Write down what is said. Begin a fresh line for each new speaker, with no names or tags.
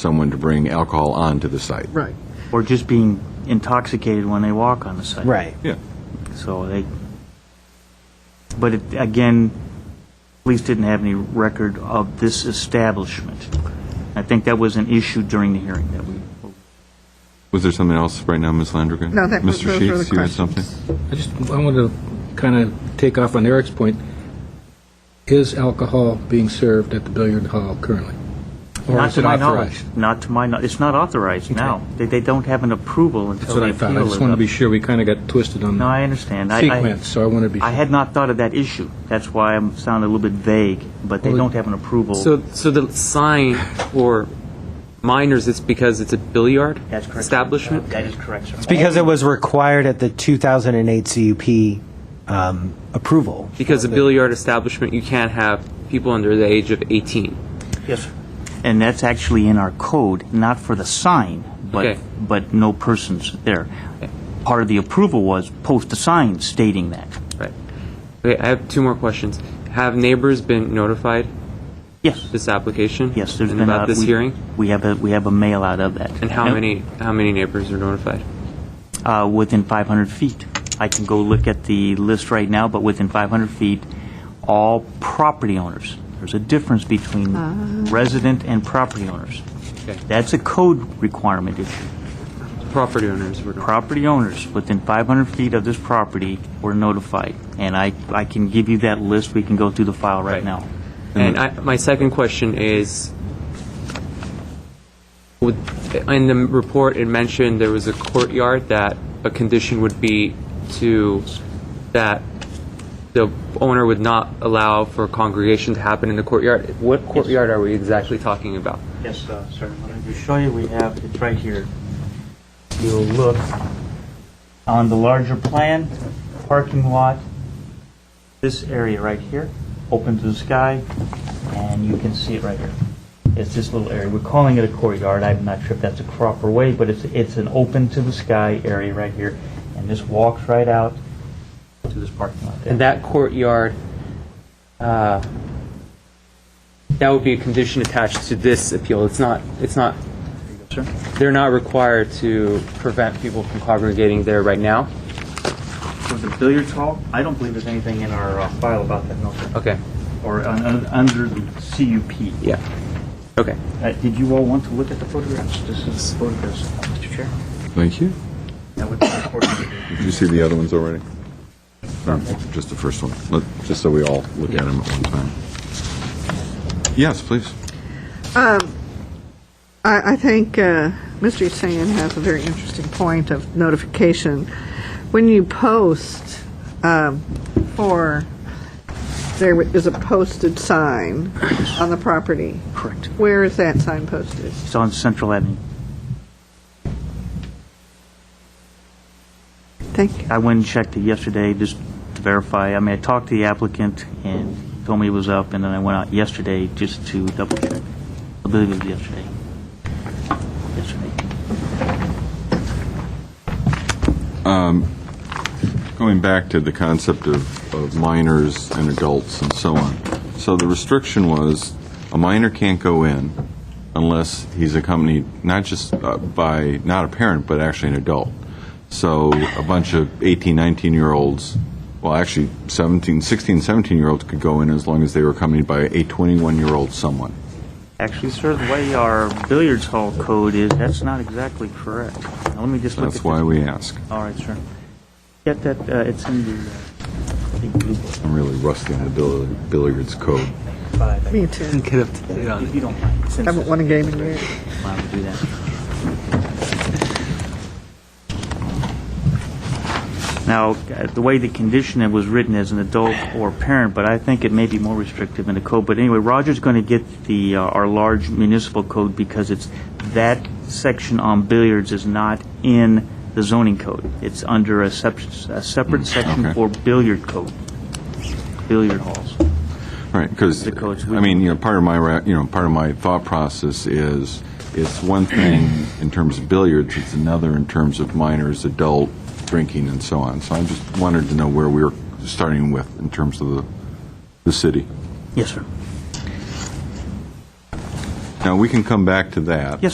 someone to bring alcohol onto the site.
Right.
or just being intoxicated when they walk on the site.
Right.
Yeah.
So they, but it, again, police didn't have any record of this establishment. I think that was an issue during the hearing that we,
Was there something else right now, Ms. Landrigan?
No, that was-
Mr.
those were
Sheets,
the
you had
questions.
something?
I just, I want to kind of take off on Eric's point. Is alcohol being served at the billiard hall currently? Or
not
is
to
it
my knowledge.
authorized?
Not to my, kno- it's not authorized now. They, they don't have an approval
That's
until
what
they
I
appeal it.
thought. I just want to be
up.
sure we kind of got twisted on
No,
the
I understand. I- I-
sequence, so I want to be
I
sure.
had not thought of that issue. That's why I'm sounding a little bit vague, but they
Well,
don't have an approval.
So, so the sign for minors, it's because it's a billiard
That's correct. sir.
establishment?
That is correct, sir.
Because it was required at the 2008 CUP um, approval.
Because a billiard establishment, you can't have people under the age of 18.
Yes, sir. And that's actually in our code, not for the sign, but,
Okay.
but no persons there. Part of the approval was post a sign stating that.
Right. Okay, I have two more questions. Have neighbors been notified
Yes,
this application?
yes, there's
and
been.
about
a-
this
we-
hearing?
We have a, we have a mail out of that.
And how many how many neighbors are notified?
Uh, within 500 feet. I can go look at the list right now, but within 500 feet, all property owners. There's a difference between resident and property owners.
Okay.
That's a code requirement issue.
Property owners were notified.
property owners within 500 feet of this property were notified, and I, I can give you that list, we can go through the file right
Right.
now.
And I, my second question is, would, in the report, it mentioned there was a courtyard that a condition would be to, that the owner would not allow for congregation to happen in the courtyard. What courtyard are we exactly talking about?
Yes, uh, sir, let me show you, we have, it's right here. You'll look on the larger plan, parking lot, this area right here, open to the sky, and you can see it right here. It's this little area, we're calling it a courtyard, I'm not sure if that's a proper way, but it's, it's an open to the sky area right here, and this walks right out to this parking lot there.
And that courtyard, uh, that would be a condition attached to this appeal. It's not, it's not,
Sir?
they're not required to prevent people from congregating there right now?
For the billiards hall, I don't believe there's anything in our uh, file about that, no, sir.
Okay,
Or un- un- under the CUP.
yeah. Okay.
Uh, Did you all want to look at the photographs? This is the photographs, Mr. Chair.
Thank you.
That would be important.
Did you see the other ones already? Or Just the first one, Let- just so we all look at them at one time. Yes, please.
I, I think uh, Mr. Hussein has a very interesting point of notification. When you post um, for, there is a posted sign on the property.
Correct.
Where is that sign posted?
It's on Central Avenue.
Thank you.
I went and checked it yesterday just to verify. I mean, I talked to the applicant and he told me it was up, and then I went out yesterday just to double check. I believe it was yesterday. Yesterday.
Going back to the concept of, of minors and adults and so on. So the restriction was a minor can't go in unless he's accompanied not just uh, by not a parent but actually an adult. So a bunch of 18, 19 year olds, well actually 17, 16, 17 year olds could go in as long as they were accompanied by a 21 year old someone.
Actually, sir, the way our billiards hall code is, that's not exactly correct. Now, let me just look at
That's why
this.
we ask.
All right, sir. Get that, uh, it's in the, uh, I think, blue book
I'm really rusty on the bill- billiards code.
five. I
Me too.
Get up to date on
If you don't mind.
I haven't won a game in years.
Allowed to do that. Now, uh, the way the condition it was written as an adult or parent, but I think it may be more restrictive in the code. But anyway, Roger's going to get the, uh, our large municipal code because it's, that section on billiards is not in the zoning code. It's under a sep- a separate section
okay.
for billiard code, billiard halls.
Right, because,
The coach, we-
I mean, you know, part of my, ra- you know, part of my thought process is, it's one thing in terms of billiards, it's another in terms of minors, adult drinking and so on. So I just wanted to know where we were starting with in terms of the, the city.
Yes, sir.
Now, we can come back to that.
Yes,